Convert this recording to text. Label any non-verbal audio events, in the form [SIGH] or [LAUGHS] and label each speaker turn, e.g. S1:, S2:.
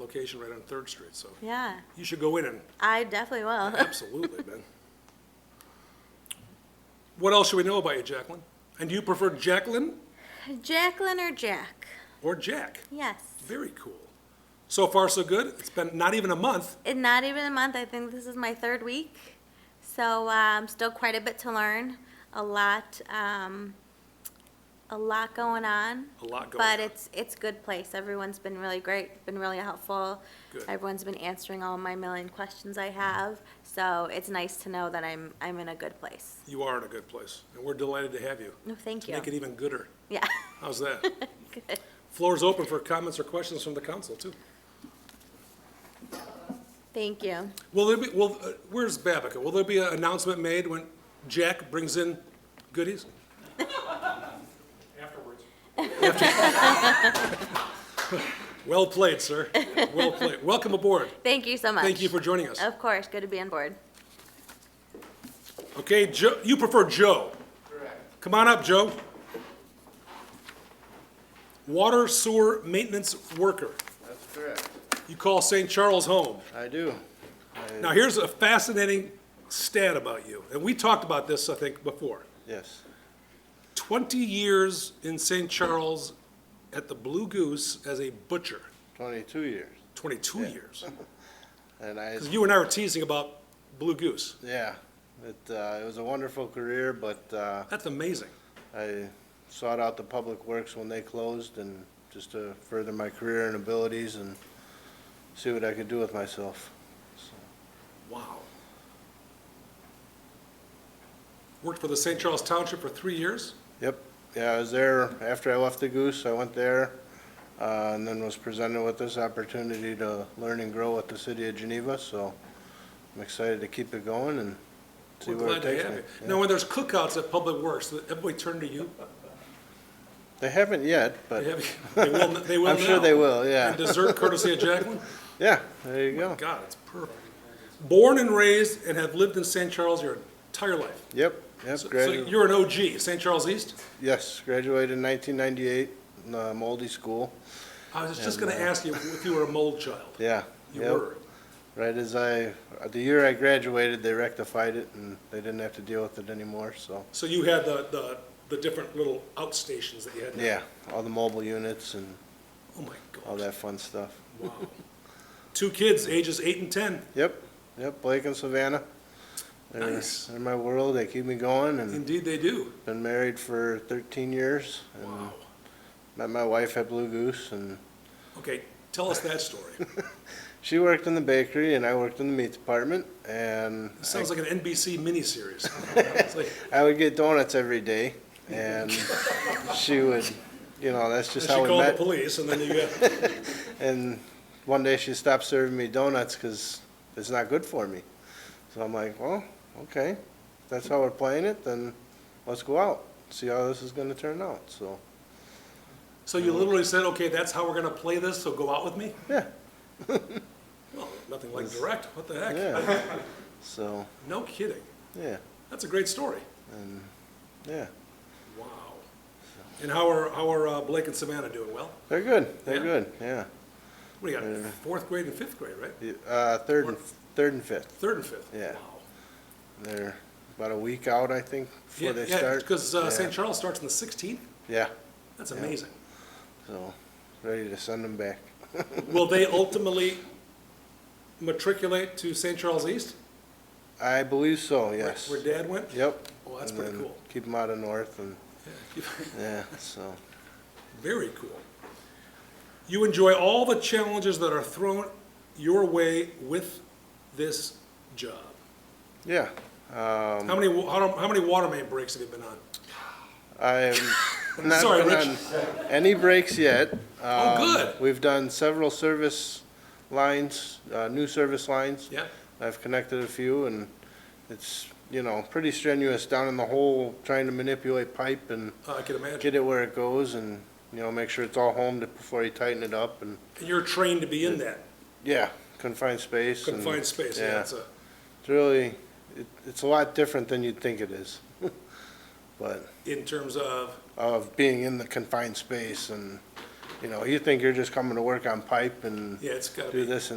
S1: location right on Third Street, so
S2: Yeah,
S1: you should go in and,
S2: I definitely will. [LAUGHS]
S1: absolutely, Ben. What else should we know about you, Jacqueline? And do you prefer Jacqueline
S2: Jacqueline or Jack?
S1: or Jack?
S2: Yes.
S1: Very cool. So far, so good. It's been not even a month.
S2: In not even a month, I think this is my third week. So um, still quite a bit to learn. A lot, um, a lot going on.
S1: A lot going
S2: But
S1: on.
S2: it's it's good place. Everyone's been really great. Been really helpful.
S1: Good.
S2: Everyone's been answering all my million questions I have. So it's nice to know that I'm I'm in a good place.
S1: You are in a good place, and we're delighted to have you.
S2: No, thank you.
S1: Make it e- even gooder.
S2: yeah. [LAUGHS]
S1: How's that?
S2: good.
S1: Floor's open for comments or questions from the council, too.
S2: Thank you.
S1: Will there be, will, uh, where's Babica? Will there be an announcement made when Jack brings in goodies? Afterwards. [LAUGHS] Well played, sir. Well played. Welcome aboard.
S2: Thank you so much.
S1: Thank you for joining us.
S2: Of course, good to be on board.
S1: Okay, Joe, you prefer Joe? Correct. Come on up, Joe. Water sewer maintenance worker.
S3: That's correct.
S1: You call St. Charles home.
S3: I do.
S1: Now, here's a fascinating stat about you, and we talked about this, I think, before.
S3: Yes.
S1: 20 years in St. Charles at the Blue Goose as a butcher,
S3: 22 years.
S1: 22 years.
S3: And I,
S1: 'Cause you and I were teasing about Blue Goose.
S3: yeah, it, uh, it was a wonderful career, but, uh,
S1: That's amazing.
S3: I sought out the public works when they closed and just to further my career and abilities and see what I could do with myself.
S1: Wow. Worked for the St. Charles Township for three years.
S3: Yep, yeah, I was there after I left the Goose, I went there, uh, and then was presented with this opportunity to learn and grow with the city of Geneva, so I'm excited to keep it going and see
S1: We're
S3: where it
S1: glad to
S3: takes me.
S1: have you.
S3: Yeah.
S1: Now, when there's cookouts at Public Works, does everybody turn to
S3: [LAUGHS]
S1: you?
S3: They haven't yet,
S1: They
S3: but,
S1: have- they will, they will
S3: I'm sure
S1: now.
S3: they will, yeah.
S1: And dessert courtesy of Jacqueline?
S3: yeah, there you go.
S1: Oh God, it's perfect. Born and raised and have lived in St. Charles your entire life.
S3: Yep, yep,
S1: So- So
S3: gradu-
S1: you're an OG, St. Charles East?
S3: yes, graduated in nineteen ninety-eight, uh, Moldy School,
S1: I was just gonna ask you if you were a mold child.
S3: yeah.
S1: You
S3: yep.
S1: were.
S3: Right as I, the year I graduated, they rectified it and they didn't have to deal with it anymore, so,
S1: So you had the, the, the different little outstations that you had? now.
S3: yeah, all the mobile units and
S1: Oh my
S3: all
S1: God,
S3: that fun stuff.
S1: wow. Two kids, ages eight and ten,
S3: Yep, yep, Blake and Savannah. They're-
S1: Nice.
S3: They're my world, they keep me going and
S1: indeed they do.
S3: been married for thirteen years. and
S1: Wow.
S3: Met my wife at Blue Goose and
S1: Okay, tell us that story.
S3: [LAUGHS] She worked in the bakery and I worked in the meat department and
S1: It sounds like an NBC
S3: [LAUGHS]
S1: miniseries. It's like-
S3: I would get donuts every day and she would, you know, that's
S1: And
S3: just
S1: she
S3: how we
S1: called the
S3: met.
S1: police and then you got,
S3: [LAUGHS] And one day she stopped serving me donuts because it's not good for me. So I'm like, well, okay, if that's how we're playing it, then let's go out, see how this is gonna turn out, so,
S1: so you literally said, okay, that's how we're gonna play this, so go out with me?
S3: yeah,
S1: Well, nothing like direct, what the heck?
S3: yeah. So,
S1: No kidding.
S3: yeah,
S1: That's a great story.
S3: yeah,
S1: Wow. And how are, how are uh, Blake and Savannah doing? Well?
S3: they're good,
S1: Yeah.
S3: they're good, yeah.
S1: What do you got, fourth grade and fifth grade, right?
S3: Uh, third and, third and fifth.
S1: Third and fifth?
S3: Yeah.
S1: Wow.
S3: They're about a week out, I think,
S1: Yeah,
S3: before they
S1: yeah, uh,
S3: start.
S1: because
S3: Yeah.
S1: St. Charles starts on the 16th?
S3: Yeah,
S1: That's amazing.
S3: so, ready to send them back. [LAUGHS]
S1: Will they ultimately matriculate to St. Charles East?
S3: I believe so,
S1: Where-
S3: yes.
S1: Where Dad went?
S3: Yep.
S1: Oh, that's
S3: And
S1: pretty
S3: then
S1: cool.
S3: Keep them out of north and,
S1: Yeah.
S3: yeah, so,
S1: [LAUGHS] Very cool. You enjoy all the challenges that are thrown your way with this job.
S3: yeah. Um,
S1: How many, wa- how how many water main breaks have you been on? [LAUGHS]
S3: I'm not
S1: Sorry,
S3: been
S1: Rich.
S3: on any breaks yet.
S1: Oh,
S3: Um,
S1: good.
S3: We've done several service lines, uh, new service lines.
S1: Yeah?
S3: I've connected a few, and it's, you know, pretty strenuous down in the hole, trying to manipulate pipe and
S1: Uh, I can imagine.
S3: get it where it goes and, you know, make sure it's all homed before you tighten it up and,
S1: And you're trained to be in that
S3: yeah, confined space. and-
S1: confined space. Yeah, it's a,
S3: It's really, it, it's a lot different than you'd think it is. [LAUGHS] But
S1: in terms of,
S3: of being in the confined space and
S1: you know, you think you're just coming to work on pipe and
S3: Yeah, it's gotta
S1: do
S3: be.
S1: this and